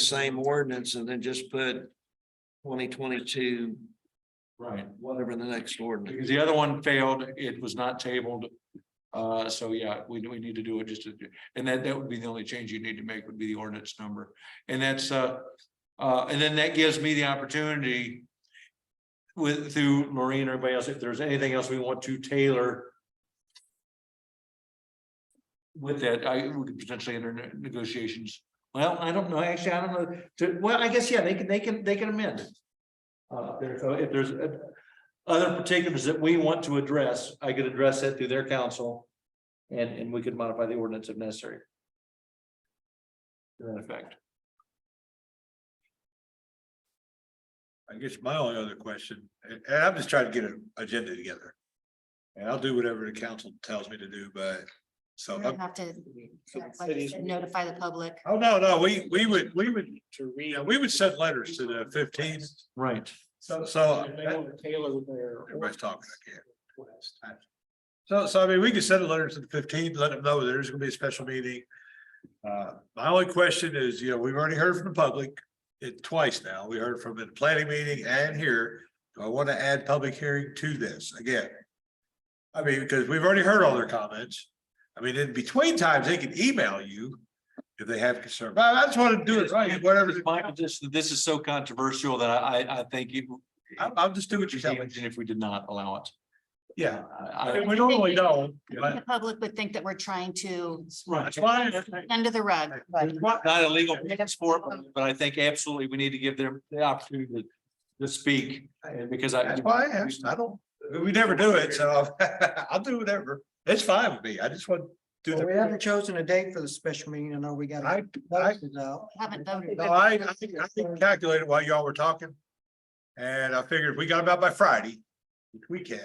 same ordinance and then just put twenty twenty-two, Right, whatever the next ordinance. because the other one failed, it was not tabled. Uh, so yeah, we, we need to do it just, to- and that, that would be the only change you need to make would be the ordinance number. And that's, uh, uh, and then that gives me the opportunity with, through Maureen or everybody else, if there's anything else we want to tailor with that, I would potentially enter ne- negotiations. Well, I don't know, actually, I don't know, to, well, I guess, yeah, they can, they can, they can amend. it. Uh, there, so if there's uh, other particulars that we want to address, I could address that through their counsel. And, and we could modify the ordinance if necessary. To that effect. I guess my only other question, and and I'm just trying to get an agenda together. And I'll do whatever the council tells me to do, but so, We're I'm- gonna have to So the like you cities- said, notify the public. oh, no, no, we, we would, we would, yeah, we would send letters to the fifteenth. Right. So, so uh, Taylor there. everybody's talking, I can't. So, so I mean, we could send a letter to the fifteenth, let them know there's gonna be a special meeting. Uh, my only question is, you know, we've already heard from the public it twice now. We heard from the planning meeting and here. Do I want to add public hearing to this again? I mean, because we've already heard all their comments. I mean, in between times, they can email you if they have concerns. But I just want to do it right, whatever. Michael, this, this is so controversial that I, I, I think it. I'll, I'll just do what you tell me. If we did not allow it. Yeah, I, I I, mean, we normally don't, The but public would think that we're trying to right. that's why. I- under the rug. but Not not illegal sport, but I think absolutely we need to give them the opportunity to, to speak. And because I. That's why I asked. I don't, we never do it, so I'll do whatever. It's fine with me. I just want to do Well, We the. haven't chosen a date for the special meeting. I know we got. I, I, notices out. Haven't voted. no, I, I think, I think calculated while y'all were talking. And I figured if we got about by Friday, which we can.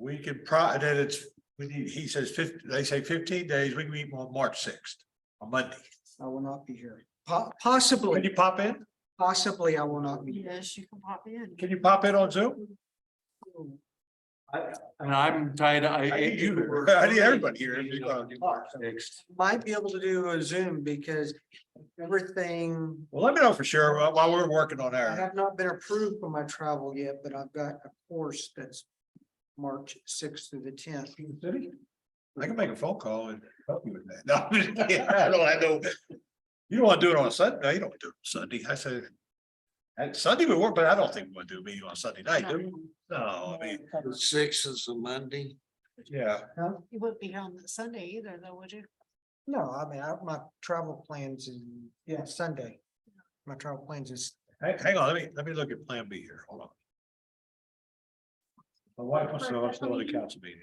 We can pro, then it's, we need, he says fifty, they say fifteen days, we can meet on March sixth, on Monday. I will not be here. Po- Can Possibly, you pop in? possibly I will not be. here. Yes, you can pop in. Can you pop in on Zoom? And I'm tied, I. I need you, I need everybody here. Next. Might be able to do a Zoom because everything, Well, let me know for sure while- while we're working on I our. have not been approved for my travel yet, but I've got a course that's March sixth through the tenth. I can make a phone call and help you with that. No, I'm just kidding. I don't, I don't. You don't want to do it on Sunday. No, you don't want to do it on Sunday. I said. And Sunday would work, but I don't think we want to do a meeting on Sunday night. do we? No, I mean, The sixth is a Monday. yeah, You wouldn't be here on Sunday either, though, would you? No, I mean, I, my travel plans is yeah, Sunday. My travel plans is hang, hang on, let me, let me look at Plan B here. Hold on. My wife wants to know if I'm still at the council meeting.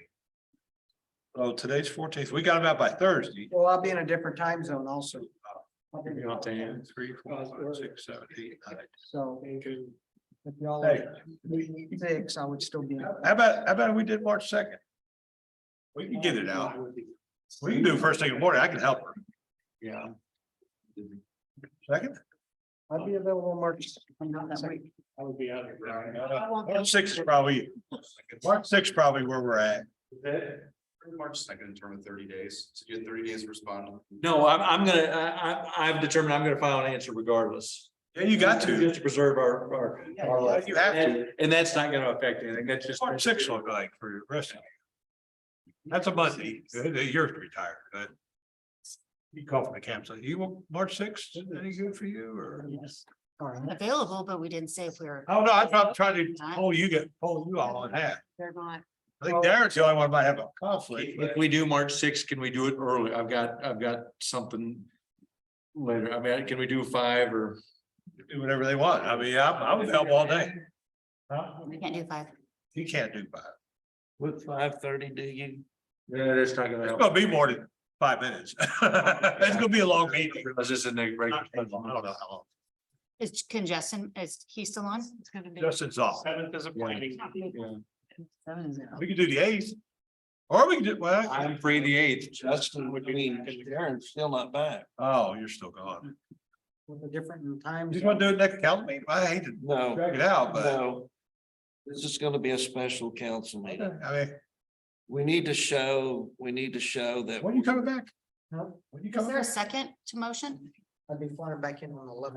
Oh, today's fourteenth. We got them out by Thursday. Well, I'll be in a different time zone also. Three, four, five, six, seven, eight, nine. So. If y'all Hey. are six, I would still be. How about, how about we did March second? We can get it out. We can do it first thing in the morning. I can help her. Yeah. Second? I'd be available on March. I would be out of March six is probably, March six is probably where we're at. March second, term of thirty days, so you have thirty days to respond. No, I'm, I'm gonna, I, I, I've determined I'm gonna file an answer regardless. Yeah, you got to. Just to preserve our, our. our Yeah, you have to. And- And that's not gonna affect anything, that's just. March six look like for your rest. of you. That's a Monday. Uh, You're retired, but. You call from the campsite. You want March sixth? Any good for you or? All right. Available, but we didn't say if we were, Oh, no, I'm not trying to, oh, you get, oh, you all in half. they're not. I think Darren's the only one might have a conflict. If we do March sixth, can we do it early? I've got, I've got something later. I mean, can we do five or? Do whatever they want. I mean, I'm, I'm available all day. We can't do five. He can't do five. What five thirty do you? Yeah, that's not gonna It's help. gonna be more than five minutes. It's gonna be a long meeting. Realize this isn't a regular- I don't know how long. Is congestion, is he still on? It's gonna be. Justin's off. Yeah. We could do the eighth. Or we could do, well, I'm free the eighth. Justin would be, Darren's still not back. oh, you're still gone. With a different time. You just zone. wanna do it next council meeting? I hate to No, drag it out, but no. This is gonna be a special council meeting. I mean, We need to show, we need to show that when are you coming back? Huh? When you Is coming there a back? second to motion? I'd be flying back in on the eleventh.